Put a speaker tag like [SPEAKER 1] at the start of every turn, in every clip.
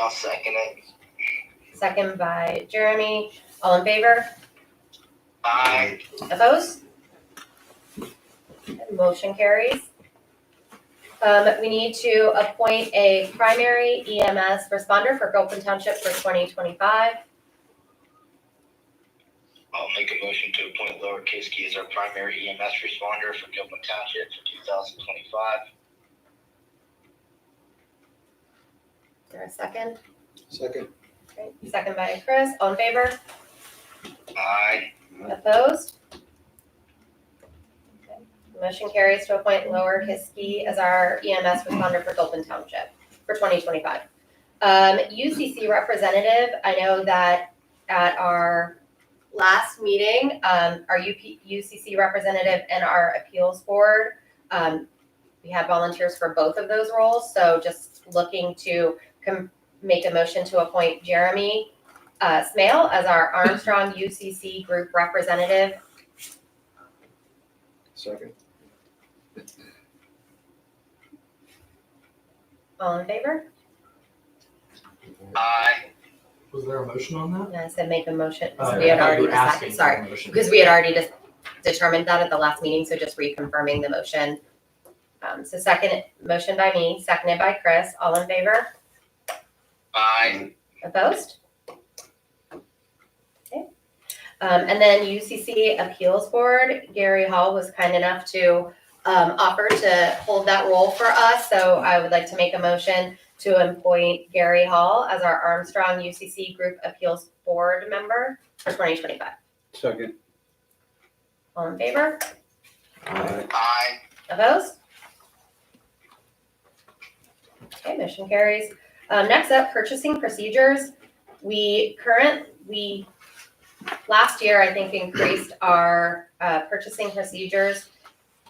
[SPEAKER 1] I'll second it.
[SPEAKER 2] Second by Jeremy. All in favor?
[SPEAKER 1] Aye.
[SPEAKER 2] Opposed? Motion carries. Um, we need to appoint a primary EMS responder for Gilpin Township for twenty twenty-five.
[SPEAKER 1] I'll make a motion to appoint Laura Kiske as our primary EMS responder for Gilpin Township for two thousand twenty-five.
[SPEAKER 2] Is there a second?
[SPEAKER 3] Second.
[SPEAKER 2] Great. Second by Chris. All in favor?
[SPEAKER 1] Aye.
[SPEAKER 2] Opposed? Okay. Motion carries to appoint Lower Hiskey as our EMS responder for Gilpin Township for twenty twenty-five. Um, UCC representative, I know that at our last meeting, um, our UP, UCC representative and our appeals board, um, we had volunteers for both of those roles, so just looking to com- make a motion to appoint Jeremy uh, Smale as our Armstrong UCC Group Representative.
[SPEAKER 3] Second.
[SPEAKER 2] All in favor?
[SPEAKER 1] Aye.
[SPEAKER 4] Was there a motion on that?
[SPEAKER 2] And I said make a motion,
[SPEAKER 4] Uh,
[SPEAKER 2] so we had
[SPEAKER 4] I thought you
[SPEAKER 2] already
[SPEAKER 4] were asking
[SPEAKER 2] decided,
[SPEAKER 4] for
[SPEAKER 2] sorry,
[SPEAKER 4] a motion.
[SPEAKER 2] because we had already just determined that at the last meeting, so just reconfirming the motion. Um, so second, motion by me, seconded by Chris, all in favor?
[SPEAKER 1] Aye.
[SPEAKER 2] Opposed? Okay. Um, and then UCC Appeals Board, Gary Hall was kind enough to, um, offer to hold that role for us. So I would like to make a motion to appoint Gary Hall as our Armstrong UCC Group Appeals Board member for twenty twenty-five.
[SPEAKER 3] Second.
[SPEAKER 2] All in favor?
[SPEAKER 3] Aye.
[SPEAKER 1] Aye.
[SPEAKER 2] Opposed? Okay, motion carries. Um, next up, purchasing procedures. We current, we, last year, I think, increased our, uh, purchasing procedures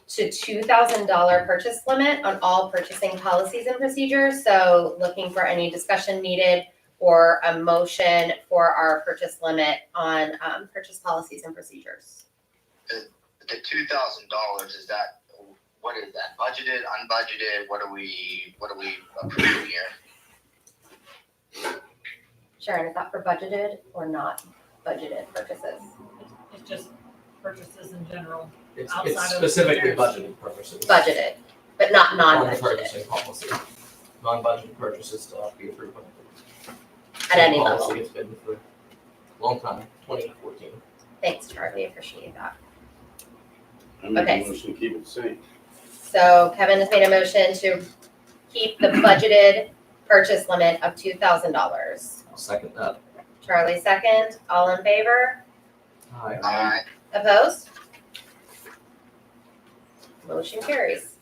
[SPEAKER 2] to two thousand dollar purchase limit on all purchasing policies and procedures. So looking for any discussion needed or a motion for our purchase limit on, um, purchase policies and procedures.
[SPEAKER 1] The two thousand dollars, is that, what is that, budgeted, unbudgeted, what are we, what are we approving here?
[SPEAKER 2] Sharon, is that for budgeted or not budgeted purchases?
[SPEAKER 5] It's just purchases in general.
[SPEAKER 4] It's, it's
[SPEAKER 5] Outside of the
[SPEAKER 4] specifically
[SPEAKER 5] there's-
[SPEAKER 4] budgeted purposes.
[SPEAKER 2] budgeted, but not
[SPEAKER 4] On the
[SPEAKER 2] non-budgeted
[SPEAKER 4] purchasing policy. Non-budgeted purchases still have to be approved. by the-
[SPEAKER 2] at any
[SPEAKER 4] policy.
[SPEAKER 2] level.
[SPEAKER 4] It's been for a long time, twenty fourteen.
[SPEAKER 2] Thanks, Charlie, appreciate that.
[SPEAKER 6] I make
[SPEAKER 2] Okay.
[SPEAKER 6] a motion to keep it safe.
[SPEAKER 2] So Kevin has made a motion to keep the budgeted purchase limit of two thousand dollars.
[SPEAKER 4] I'll second that.
[SPEAKER 2] Charlie second, all in favor?
[SPEAKER 4] Aye.
[SPEAKER 1] Aye.
[SPEAKER 2] Opposed? Motion carries.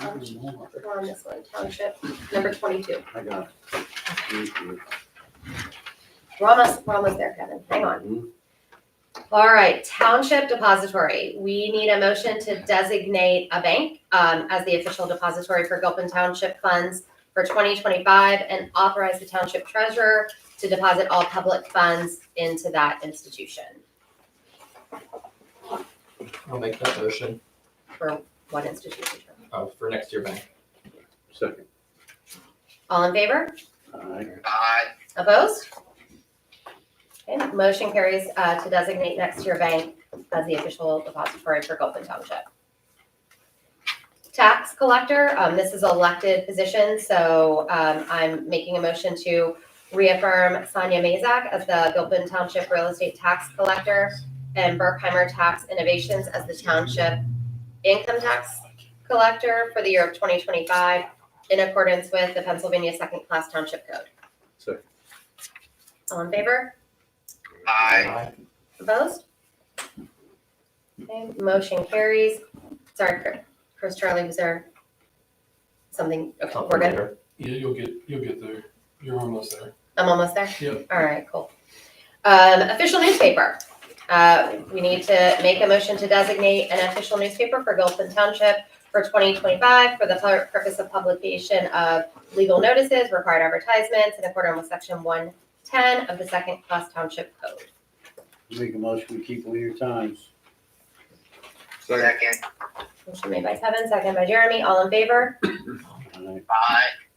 [SPEAKER 2] We're on this one, township number twenty-two.
[SPEAKER 6] I got it. Thank you.
[SPEAKER 2] We're almost, we're almost there, Kevin, hang on.
[SPEAKER 6] Mm-hmm.
[SPEAKER 2] All right, Township Depository, we need a motion to designate a bank um, as the official depository for Gilpin Township funds for 2025 and authorize the township treasurer to deposit all public funds into that institution.
[SPEAKER 4] I'll make that motion,
[SPEAKER 2] One institution.
[SPEAKER 4] uh, for next year bank.
[SPEAKER 6] Second.
[SPEAKER 2] All in favor?
[SPEAKER 6] Aye.
[SPEAKER 1] Aye.
[SPEAKER 2] Opposed? Okay, motion carries uh, to designate next year bank as the official depository for Gulfin Township. Tax collector, um, this is elected position, so um, I'm making a motion to reaffirm Sonia Mazak as the Gulfin Township Real Estate Tax Collector and Berkheimer Tax Innovations as the Township Income Tax Collector for the year of 2025 in accordance with the Pennsylvania Second Class Township Code.
[SPEAKER 6] Second.
[SPEAKER 2] All in favor?
[SPEAKER 1] Aye.
[SPEAKER 4] Aye.
[SPEAKER 2] Opposed? Okay, motion carries. Sorry, Chris- Chris Charlie, was there something? Okay,
[SPEAKER 4] Something
[SPEAKER 2] we're good.
[SPEAKER 4] later.
[SPEAKER 7] Yeah, you'll get, you'll get there. You're almost there.
[SPEAKER 2] I'm almost there?
[SPEAKER 7] Yeah.
[SPEAKER 2] All right, cool. Um, official newspaper. Uh, we need to make a motion to designate an official newspaper for Gilpin Township for twenty twenty-five for the pur- purpose of publication of legal notices, required advertisements in accordance with section one ten of the second class township code.
[SPEAKER 6] Make a motion to keep all your times.
[SPEAKER 1] Second.
[SPEAKER 2] Motion made by Kevin, second by Jeremy, all in favor?
[SPEAKER 6] Aye.
[SPEAKER 1] Aye.